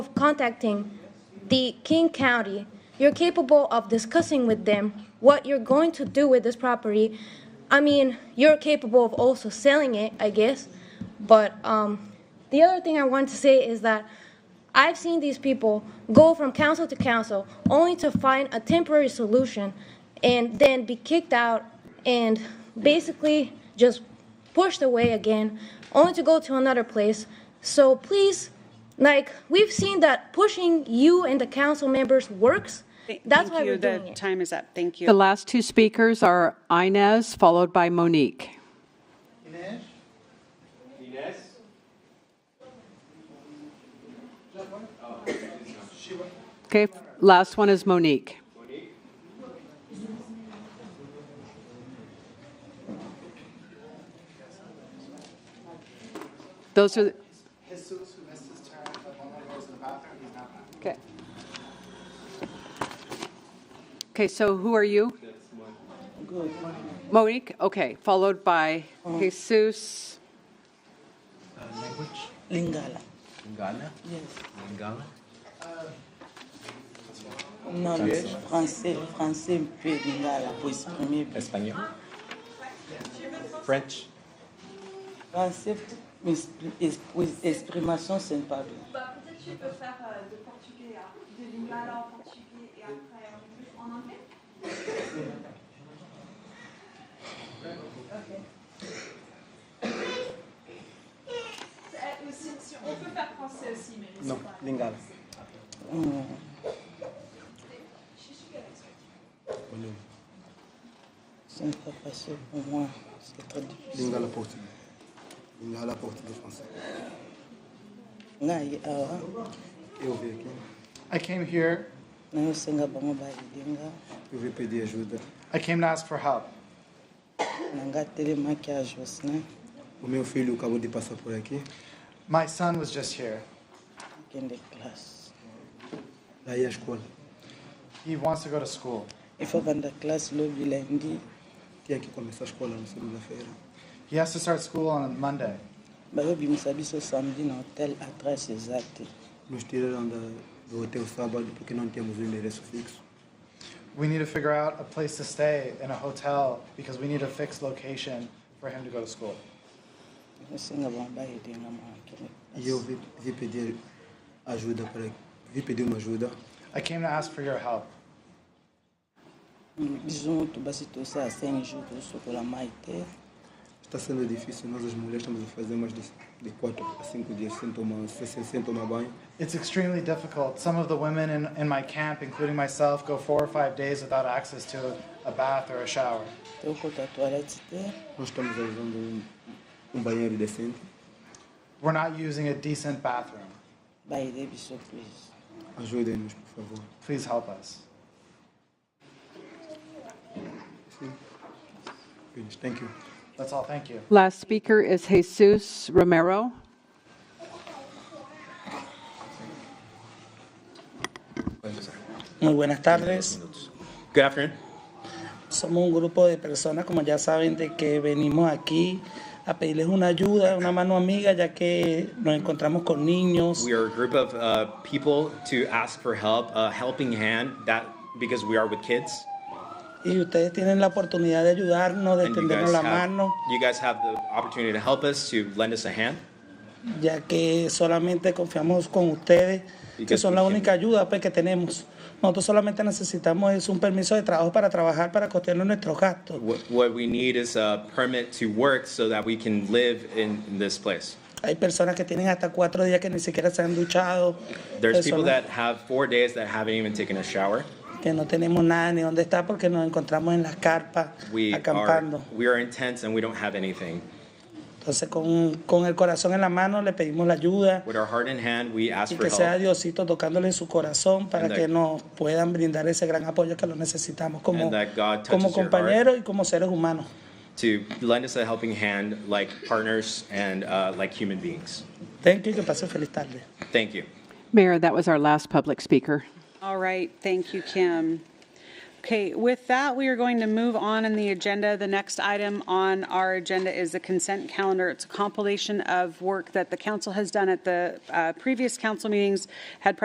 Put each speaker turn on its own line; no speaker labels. contacting the King County, you're capable of discussing with them what you're going to do with this property. I mean, you're capable of also selling it, I guess. But um, the other thing I want to say is that I've seen these people go from council to council only to find a temporary solution and then be kicked out and basically just pushed away again, only to go to another place. So please, like, we've seen that pushing you and the council members works. That's
Thank
why
you.
we're doing
The
it.
time is up. Thank
The
you.
last two speakers are Inez, followed by Monique.
Inês?
Okay, last one is Monique. Those are,
Jesus, who missed his turn, but only goes to the bathroom, he's not back.
okay. Okay, so who are you? Monique, okay, followed by Jesus.
Lingala.
Lingala?
Yes.
Lingala?
Non, le français, le français un peu lingala pour exprimer. bien.
Espagnol? French?
Français, mais expri- es- pour exprimation, ce n'est pas bien.
Bah, peut-être tu peux faire euh, de portugais, à- de lingala en portugais et après en en anglais. Euh, aussi, si- on peut faire français aussi, mais c'est pas-
Lingala.
Ce n'est pas facile pour moi. C'est très difficile.
Lingala portugais. Lingala português français.
Ngai awa,
Eu vim aqui. I came here,
nayosenga bango balinga,
eu vim pedir ajuda. I came to ask for help.
nanga telemaki ya Jocelyn,
O meu filho acabou de passar por aqui. My son was just here.
akende classe.
Daí a escola. He wants to go to school.
efavanda classe lobi lundi,
Tinha que começar a escola na segunda-feira. He has to start school on Monday.
bayobimisa biso samedi na hotel atrás eza te.
Nos tiraram da, do hotel sábado porque não temos um endereço fixo. We need to figure out a place to stay in a hotel because we need a fixed location for him to go to school.
nayosenga bango balinga mwa akende
E eu
classe.
vim, vim pedir ajuda para vim pedir uma ajuda. I came to ask for your help.
biso moto basi tosala 5 jours tosokola mai te
Está sendo difícil, nós as mulheres estamos a fazer mais de, de 4 a 5 dias sem tomar, sem, sem tomar banho.
It's extremely difficult. Some of the women in, in my camp, including myself, go four or five days without access to a bath or a shower.
tokota toilette te
Nós estamos usando um, um banheiro decente.
We're not using a decent bathroom.
baede biso plus
Ajudem-nos, por favor.
Please help us.
Please, Thank you.
That's all. Thank you.
Last speaker is Jesus Romero.
Muy buenas tardes.
Good afternoon.
Somos un grupo de personas, como ya saben, de que venimos aquí a pedirles una ayuda, una mano amiga, ya que nos encontramos con niños.
We are a group of uh, people to ask for help, a helping hand, that because we are with kids.
Y ustedes tienen la oportunidad de ayudarnos, de
And you guys,
tendernos la
have,
mano,
you guys have the opportunity to help us, to lend us a hand.
ya que solamente confiamos con ustedes,
Y
que
que
son la
escuchen.
única ayuda pues, que tenemos. Nosotros solamente necesitamos es un permiso de trabajo para trabajar, para costearnos nuestros gastos.
What, what we need is a permit to work so that we can live in, in this place.
Hay personas que tienen hasta cuatro días que ni siquiera se han duchado.
There's people
personas-
that have four days that haven't even taken a shower.
que no tenemos nada ni dónde estar porque nos encontramos en las carpas
We are,
acampando.
we are in tents and we don't have anything.
Entonces con, con el corazón en la mano le pedimos la ayuda
With our heart in hand, we ask
y
for
que sea
help.
Diosito tocándole en su corazón para
And
que
that-
nos puedan brindar ese gran apoyo que lo necesitamos como,
And that God touches
como
your heart.
compañeros y como seres humanos.
to lend us a helping hand like partners and uh, like human beings.
Thank you y que pasen feliz tarde.
Thank you.
Mayor, that was our last public speaker.
All right, thank you, Kim. Okay, with that, we are going to move on in the agenda. The next item on our agenda is the consent calendar. It's a compilation of work that the council has done at the uh, previous council meetings, had